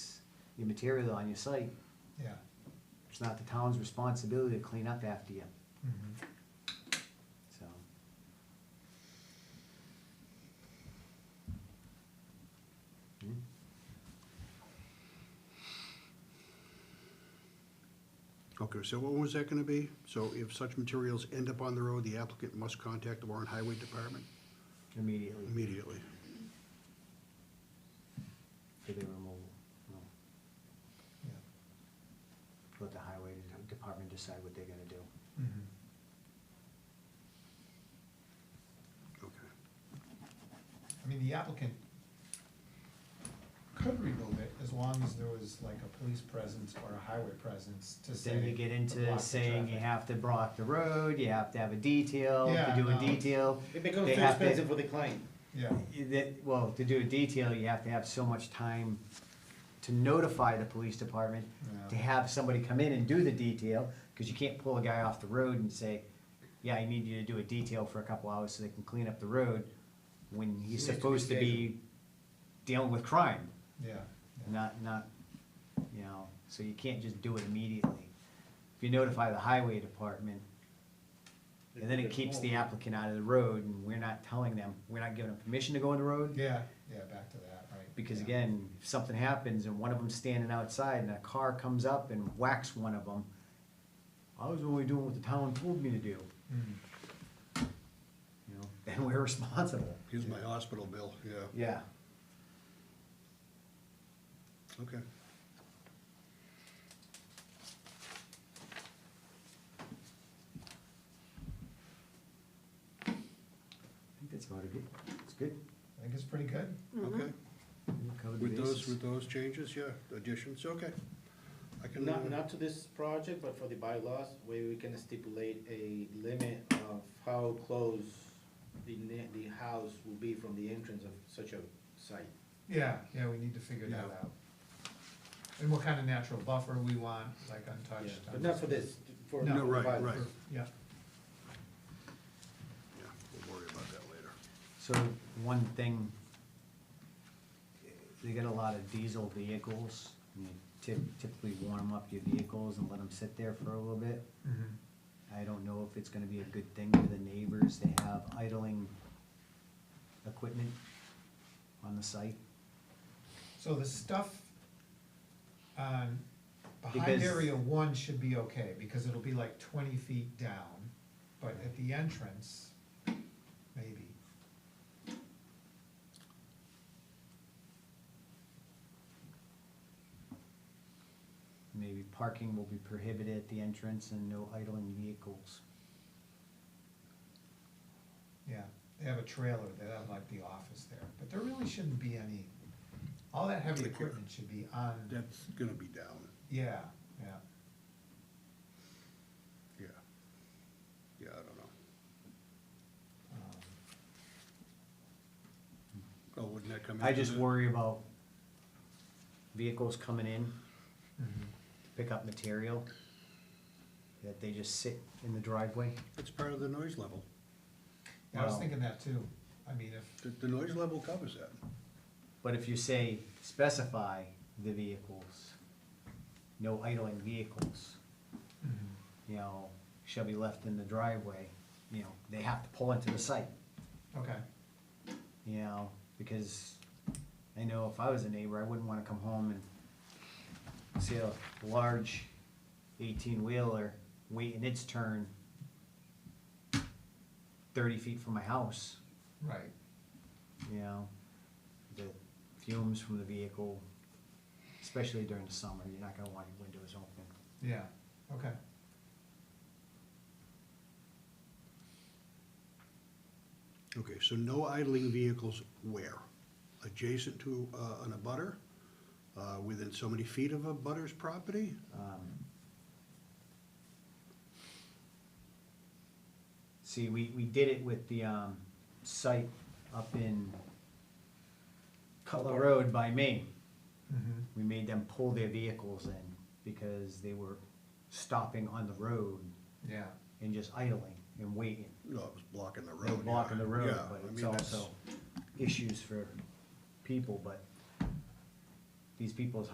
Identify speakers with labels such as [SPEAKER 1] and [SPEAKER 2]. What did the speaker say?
[SPEAKER 1] your material on your site.
[SPEAKER 2] yeah.
[SPEAKER 1] It's not the town's responsibility to clean up after you,
[SPEAKER 2] mhm.
[SPEAKER 1] so. Hmm.
[SPEAKER 3] Okay, so what was that gonna be? So if such materials end up on the road, the applicant must contact the Warren Highway Department
[SPEAKER 1] Immediately
[SPEAKER 3] immediately.
[SPEAKER 1] for the removal, no.
[SPEAKER 2] Yeah.
[SPEAKER 1] let the highway de- department decide what they're gonna do.
[SPEAKER 2] mhm.
[SPEAKER 3] Okay.
[SPEAKER 2] I mean, the applicant could remove it as long as there was like a police presence or a highway presence to say.
[SPEAKER 1] Then you get
[SPEAKER 2] to block
[SPEAKER 1] into
[SPEAKER 2] the
[SPEAKER 1] saying you
[SPEAKER 2] traffic.
[SPEAKER 1] have to block the road, you have to have a detail, to
[SPEAKER 2] Yeah,
[SPEAKER 1] do a
[SPEAKER 2] no.
[SPEAKER 1] detail.
[SPEAKER 4] It becomes
[SPEAKER 1] they
[SPEAKER 4] too
[SPEAKER 1] have to-
[SPEAKER 4] expensive for the client.
[SPEAKER 2] Yeah,
[SPEAKER 1] you- That, well, to do a detail, you have to have so much time to notify the police department, to
[SPEAKER 2] Yeah.
[SPEAKER 1] have somebody come in and do the detail, cause you can't pull a guy off the road and say, yeah, I need you to do a detail for a couple hours so they can clean up the road, when he's
[SPEAKER 4] needs to be
[SPEAKER 1] supposed to be dealing with crime.
[SPEAKER 2] yeah, yeah,
[SPEAKER 1] not, not, you know, so you can't just do it immediately. If you notify the highway department, and then it keeps the applicant out of the road, and we're not telling them, we're not giving them permission to go on the road.
[SPEAKER 2] yeah, yeah, back to that, right.
[SPEAKER 1] Because
[SPEAKER 2] yeah.
[SPEAKER 1] again, if something happens and one of them's standing outside and a car comes up and whacks one of them, I was only doing what the town told me to do,
[SPEAKER 2] Mhm.
[SPEAKER 1] you know, and we're responsible.
[SPEAKER 3] Here's my hospital bill, yeah,
[SPEAKER 1] Yeah,
[SPEAKER 3] okay.
[SPEAKER 1] I think that's about it. It's good.
[SPEAKER 2] I think it's pretty good.
[SPEAKER 1] Mm-hmm.
[SPEAKER 3] Okay,
[SPEAKER 1] We've covered the
[SPEAKER 3] with those,
[SPEAKER 1] bases.
[SPEAKER 3] with those changes, yeah, additions, okay. I can,
[SPEAKER 4] Not,
[SPEAKER 3] uh,
[SPEAKER 4] not to this project, but for the bylaws, where we can stipulate a limit of how close the ne the house will be from the entrance of such a site.
[SPEAKER 2] Yeah, yeah, we need to figure that
[SPEAKER 3] Yeah.
[SPEAKER 2] out. And what kind of natural buffer we want, like
[SPEAKER 4] Yeah,
[SPEAKER 2] untouched.
[SPEAKER 4] But not for this, for.
[SPEAKER 2] No,
[SPEAKER 3] no, right,
[SPEAKER 4] bylaws.
[SPEAKER 3] right,
[SPEAKER 2] Yeah,
[SPEAKER 3] yeah, we'll worry about that later.
[SPEAKER 1] So one thing, they get a lot of diesel vehicles. and you typ- Typically warm up your vehicles and let them sit there for a little bit.
[SPEAKER 2] mhm,
[SPEAKER 1] I don't know if it's gonna be a good thing for the neighbors to have idling equipment on the site.
[SPEAKER 2] so the stuff, um, behind
[SPEAKER 1] Because-
[SPEAKER 2] area one should be okay, because it'll be like twenty feet down, but at the entrance, maybe.
[SPEAKER 1] Maybe parking will be prohibited at the entrance and no idling vehicles.
[SPEAKER 2] Yeah, they have a trailer, they have like the office there, but there really shouldn't be any, all that heavy
[SPEAKER 3] Take care.
[SPEAKER 2] equipment should be on,
[SPEAKER 3] That's gonna be down,
[SPEAKER 2] yeah, yeah.
[SPEAKER 3] yeah. Yeah, I don't know.
[SPEAKER 2] um,
[SPEAKER 3] Oh, wouldn't that come in?
[SPEAKER 1] I just worry about vehicles coming in
[SPEAKER 2] mhm.
[SPEAKER 1] to pick up material, that they just sit in the driveway.
[SPEAKER 3] It's part of the noise level.
[SPEAKER 2] Yeah, I was
[SPEAKER 1] Wow.
[SPEAKER 2] thinking that too, I mean, if,
[SPEAKER 3] The, the noise level covers that.
[SPEAKER 1] But if you say specify the vehicles, no idling vehicles,
[SPEAKER 2] mhm,
[SPEAKER 1] you know, shall be left in the driveway, you know, they have to pull into the site,
[SPEAKER 2] okay,
[SPEAKER 1] you know, because I know if I was a neighbor, I wouldn't wanna come home and see a large eighteen wheeler waiting its turn thirty feet from my house,
[SPEAKER 2] right,
[SPEAKER 1] you know, the fumes from the vehicle, especially during the summer, you're not gonna want your windows open.
[SPEAKER 2] yeah, okay.
[SPEAKER 3] Okay, so no idling vehicles where? Adjacent to, uh, an abutter? Uh, within so many feet of a butter's property?
[SPEAKER 1] Um, See, we, we did it with the, um, site up in Cutler Road by Maine.
[SPEAKER 2] mhm,
[SPEAKER 1] We made them pull their vehicles in because they were stopping on the road
[SPEAKER 2] Yeah,
[SPEAKER 1] and just idling and waiting.
[SPEAKER 3] No, it was blocking the
[SPEAKER 1] They're
[SPEAKER 3] road.
[SPEAKER 1] blocking
[SPEAKER 3] yeah,
[SPEAKER 1] the road,
[SPEAKER 3] yeah,
[SPEAKER 1] but
[SPEAKER 3] I
[SPEAKER 1] it's
[SPEAKER 3] mean, that's-
[SPEAKER 1] also issues for people, but these people's